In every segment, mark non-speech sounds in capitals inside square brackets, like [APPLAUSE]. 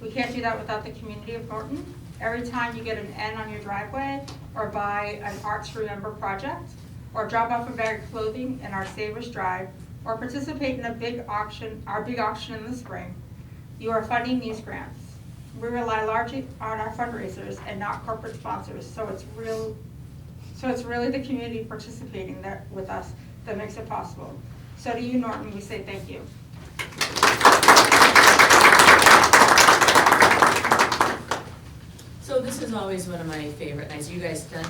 We can't do that without the community of Norton. Every time you get an N on your driveway or buy an Arts to Remember project, or drop off a bag of clothing in our Savers Drive, or participate in a big auction, our big auction in the spring, you are funding these grants. We rely largely on our fundraisers and not corporate sponsors, so it's real, so it's really the community participating that, with us that makes it possible. So to you, Norton, we say thank you. So this is always one of my favorite nights, you guys done?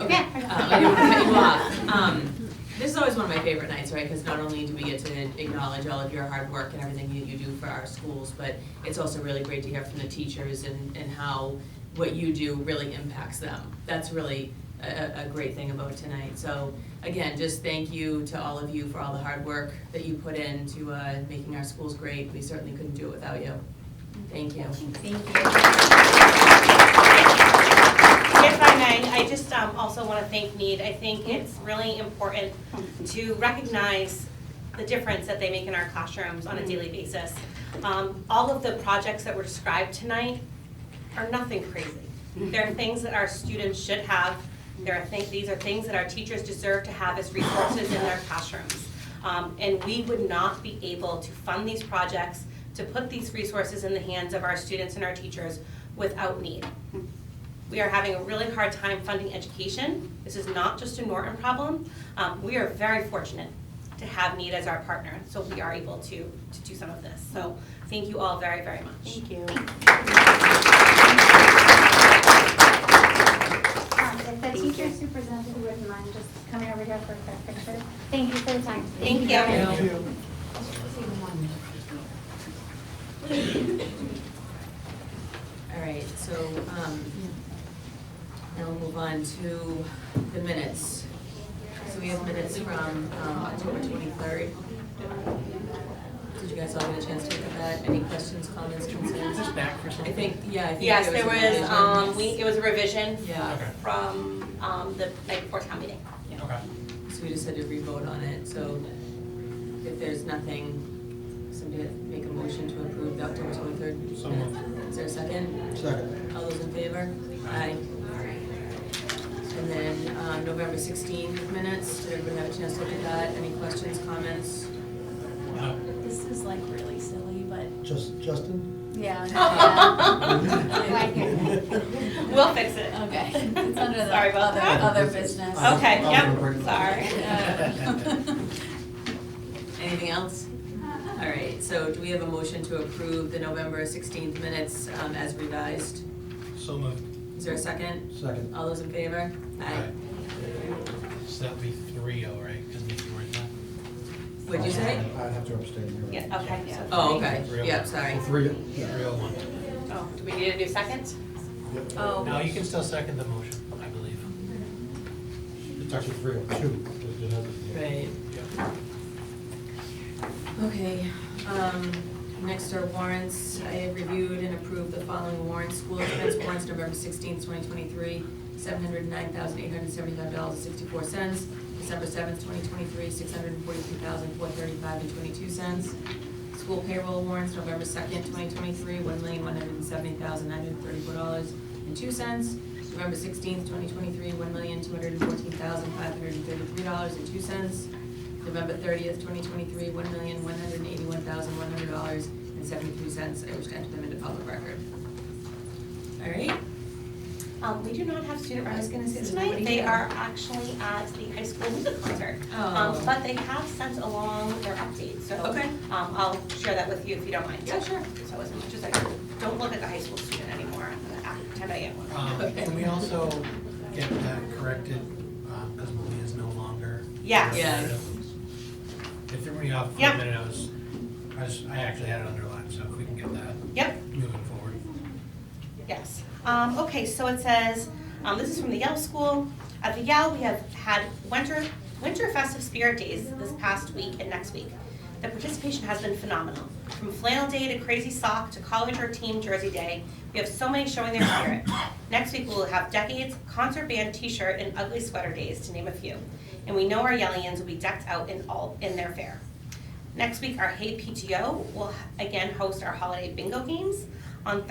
Yeah. Uh, I didn't wanna cut you off. Um, This is always one of my favorite nights, right, because not only do we get to acknowledge all of your hard work and everything that you do for our schools, but it's also really great to hear from the teachers and, and how what you do really impacts them. That's really a, a- a great thing about tonight. So again, just thank you to all of you for all the hard work that you put into, uh, making our schools great. We certainly couldn't do it without you. Thank you. If I may, I just um, also want to thank Need. I think it's really important to recognize the difference that they make in our classrooms on a daily basis. Um, All of the projects that were described tonight are nothing crazy. There are things that our students should have. There are things, these are things that our teachers deserve to have as resources in their classrooms. Um, And we would not be able to fund these projects, to put these resources in the hands of our students and our teachers without Need. We are having a really hard time funding education. This is not just a Norton problem. Um, We are very fortunate to have Need as our partner, so we are able to, to do some of this. So thank you all very, very much. Thank you. Um, If the teachers who presented wouldn't mind just coming over here for a quick picture. Thank you for the time. Thank you. Thank All right, so um, now we'll move on to the minutes. So we have minutes from um, October 23rd. Did you guys all get a chance to look at that? Any questions, comments, concerns? Just back for I something. think, yeah, I think Yes, there a was, um, we, revision. it was a revision Yeah, from, um, the night before town meeting. Okay. so we just had to re-vote on it, so if there's nothing, somebody make a motion to approve the October 23rd. So minutes. Is there a second? Second. All those in favor? Aye. And then um, November 16 minutes, did everyone have a chance to look at that? Any questions, comments? No. This is like really silly, but Just, [LAUGHS] Justin? yeah. [LAUGHS] We'll fix it. Okay, it's under the Sorry about other, that. other business. [LAUGHS] Okay, I'll yep, remember. sorry. [LAUGHS] Anything else? All right, so do we have a motion to approve the November 16th minutes um, as revised? So moved. Is there a second? Second. All those in favor? Aye. So that'd be three oh, right? Because you weren't there. What'd you say? I'd Oh, have to abstain. you're right. Yeah, okay, yeah. Oh, okay, yeah, sorry. Three, Three oh one. Oh, do we need a new second? Oh. No, you can still second the motion, I believe. it's actually three or two. because you have- Right. Okay, um, next are warrants. I have reviewed and approved the following warrants. School expense warrants, November sixteenth, twenty twenty-three, seven hundred nine thousand eight hundred seventy-five dollars, sixty-four cents. December seventh, twenty twenty-three, six hundred forty-three thousand four thirty-five and twenty-two cents. School payroll warrants, November second, twenty twenty-three, one million one hundred seventy thousand nine hundred thirty-four dollars and two cents. November sixteenth, twenty twenty-three, one million two hundred fourteen thousand five hundred thirty-three dollars and two cents. November thirtieth, twenty twenty-three, one million, one hundred and eighty-one thousand, one hundred dollars and seventy-three cents. I wish to enter them into public record. All right, Um, we do not have student I was gonna say, representatives does tonight, anybody they have- are actually at the high school music concert. Oh. Um, but they have sent along their update, so. Okay. Um, I'll share that with you if you don't mind. Yeah, sure. So as much as I, don't look at the high school student anymore, I'm gonna act, pretend I am one. Um, Can we also get that corrected, because Malia is no longer? Yes. Yeah. It threw me off for Yeah. a minute, I was, I was, I actually had it underlined, so if we can get that Yep, moving forward. Yes. Um, okay, so it says, um, this is from the Yale School. At the Yale, we have had winter, winter festive spirit days this past week and next week. The participation has been phenomenal. From flannel day to crazy sock to college or team jersey day, we have so many showing their spirit. Next week, we will have decades, concert band t-shirt, and ugly sweater days, to name a few. And we know our Yellians will be decked out in all, in their fair. Next week, our Hey PTO will again host our holiday bingo games. On